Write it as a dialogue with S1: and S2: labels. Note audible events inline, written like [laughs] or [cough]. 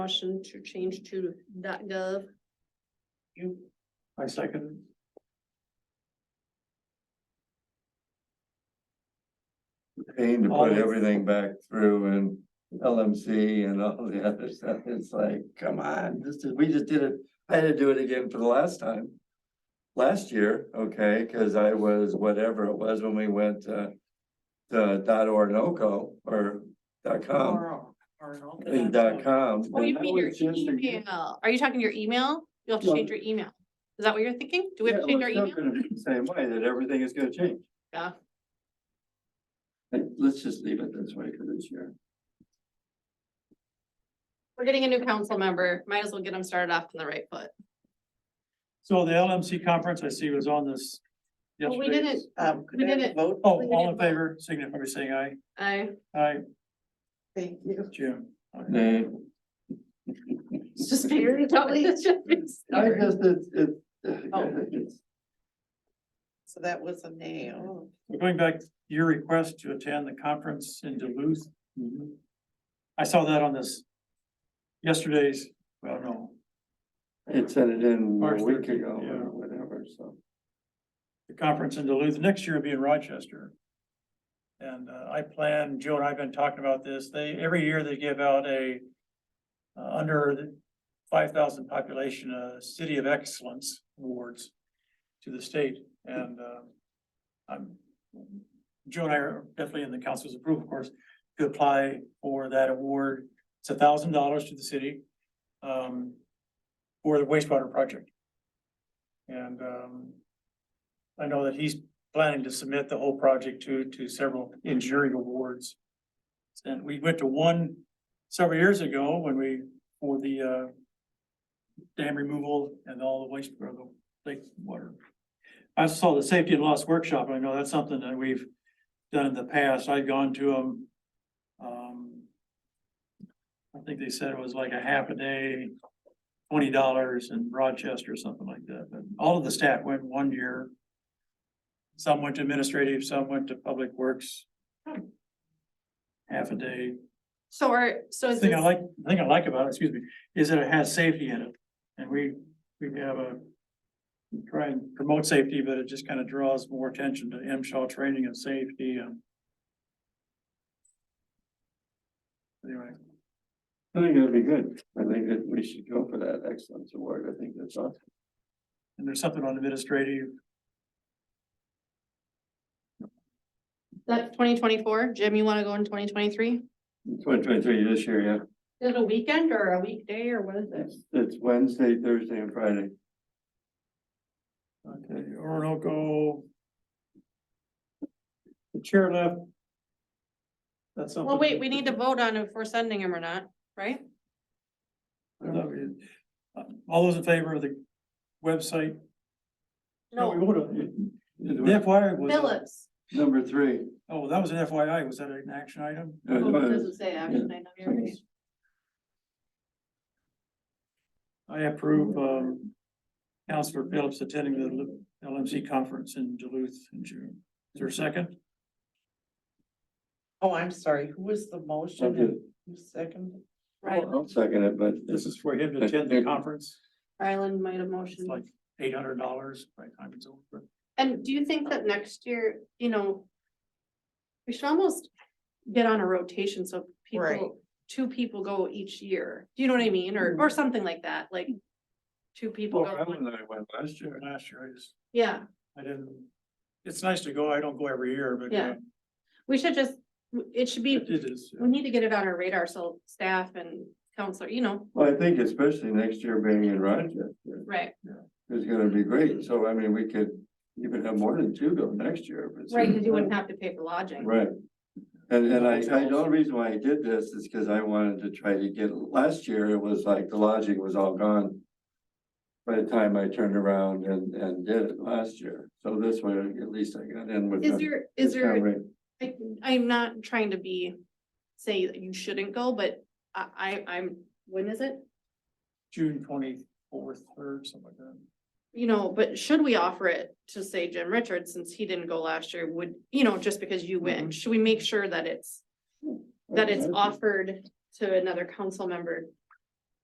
S1: Motion to change to dot gov.
S2: You. I second.
S3: pain to
S2: All
S3: put
S2: the-
S3: everything back through and LMC and all the other stuff. It's like, come on, this is, we just did it. I had to do it again for the last time. Last year, okay, cause I was whatever it was when we went to the dot Orinoco or dot com,
S2: Or- or uh, an
S3: I mean,
S2: alternate.
S3: dot com.
S1: Oh, you mean your
S2: was just a-
S1: email. Are you talking your email? You'll have to
S3: Well-
S1: change your email. Is that what you're thinking? Do we have
S3: Yeah,
S1: to change
S3: well,
S1: our
S3: it's not
S1: email?
S3: gonna be the Same way that everything is gonna change.
S1: Yeah.
S3: Like, Let's just leave it this way for this year.
S1: We're getting a new council member. Might as well get them started off on the right foot.
S2: So the LMC conference I see was on this.
S1: Well, we
S2: yesterday.
S1: didn't-
S4: Um, could
S1: We
S4: I have a
S1: didn't-
S4: vote?
S2: Oh,
S1: we
S2: all in
S1: didn't vote.
S2: favor, signify by saying aye.
S1: I,
S2: Aye,
S4: Thank you.
S2: Jim.
S3: Nay.
S1: it's just [laughs] being totally. it's just being
S3: I
S1: stubborn.
S3: just, it's, it's,
S4: Oh.
S3: it's,
S4: So that was a nay. Oh,
S2: We're Going back to your request to attend the conference in Duluth.
S3: Mm-hmm.
S2: I saw that on this yesterday's, well, no,
S3: it sent it in
S2: March
S3: a week
S2: 13th,
S3: ago
S2: yeah.
S3: or whatever, so.
S2: the conference in Duluth. Next year will be in Rochester. And uh, I plan, Joe and I have been talking about this. They, every year they give out a uh, under the five thousand population, uh, City of Excellence Awards to the state and, um, I'm, Joe and I are definitely in the council's approval, of course, to apply for that award. It's a thousand dollars to the city, um, for the wastewater project. And, um, I know that he's planning to submit the whole project to, to several engineering awards. And we went to one several years ago when we, for the, uh, dam removal and all the waste, or the lake water. I saw the safety and loss workshop, I know that's something that we've done in the past, I've gone to them. um, I think they said it was like a half a day, twenty dollars in Rochester or something like that, but all of the staff went one year. Some went to administrative, some went to public works. Half a day,
S1: So are, so is
S2: thing I
S1: this,
S2: like, the thing I like about it, excuse me, is that it has safety in it, and we, we have a. we Try and promote safety, but it just kind of draws more attention to M Shaw training and safety and. Anyway,
S3: I think it'll be good. I think that we should go for that excellence award. I think that's awesome.
S2: and there's something on administrative,
S1: that's twenty twenty-four? Jim, you wanna go in twenty twenty-three?
S3: Twenty twenty-three this year, yeah.
S1: Is it a weekend or a weekday or what is it?
S3: It's, it's Wednesday, Thursday and Friday.
S2: okay, Orinoco. The chair left. That's something.
S1: Well, wait, we need to vote on if we're sending him or not, right?
S2: uh, All those in favor of the website? we
S1: No,
S2: voted. The FYI was.
S1: Phillips.
S3: Number three.
S2: Oh, that was an FYI. Was that an action item?
S3: No, it
S1: Oh, it
S3: was-
S1: Doesn't say action item here. Okay.
S2: I approve, um, Counselor Phillips attending the LMC conference in Duluth in June. Is there a second?
S4: Oh, I'm sorry. Who was the
S3: I
S4: motion? and
S3: did.
S4: who Second?
S1: Right,
S3: I'll second it, but
S2: This is for him to attend the conference.
S1: Ryland might have
S2: It's
S1: motioned.
S2: like eight hundred dollars by the time it's over.
S1: And do you think that next year, you know, we should almost get on a rotation so
S4: Right.
S1: people, two people go each year. Do you know what I mean? Or, or something like that, like two people
S3: Well,
S1: go,
S3: Alan and I went last year.
S2: Last year, I just,
S1: yeah.
S2: I didn't, it's nice to go. I don't go every year, but uh,
S1: We should just, it should be,
S2: it it is. uh,
S1: we need to get it on our radar, so staff and counselor, you know,
S3: Well, I think especially next year being in Rochester.
S1: right?
S3: is gonna be great, so I mean, we could even have more than two go next year. if it's-
S1: Right, because you wouldn't have to pay for lodging.
S3: Right, and, and I, I, the only reason why I did this is because I wanted to try to get, last year it was like the lodging was all gone. By the time I turned around and, and did it last year, so this way, at least I got in with.
S1: Is
S3: a
S1: there, is there?
S3: discount rate.
S1: I, I'm not trying to be, say that you shouldn't go, but I, I, I'm, when is it?
S2: June twenty-fourth, third, something like that.
S1: You know, but should we offer it to say Jim Richards, since he didn't go last year, would, you know, just because you went, should we make sure that it's, that it's offered to another council member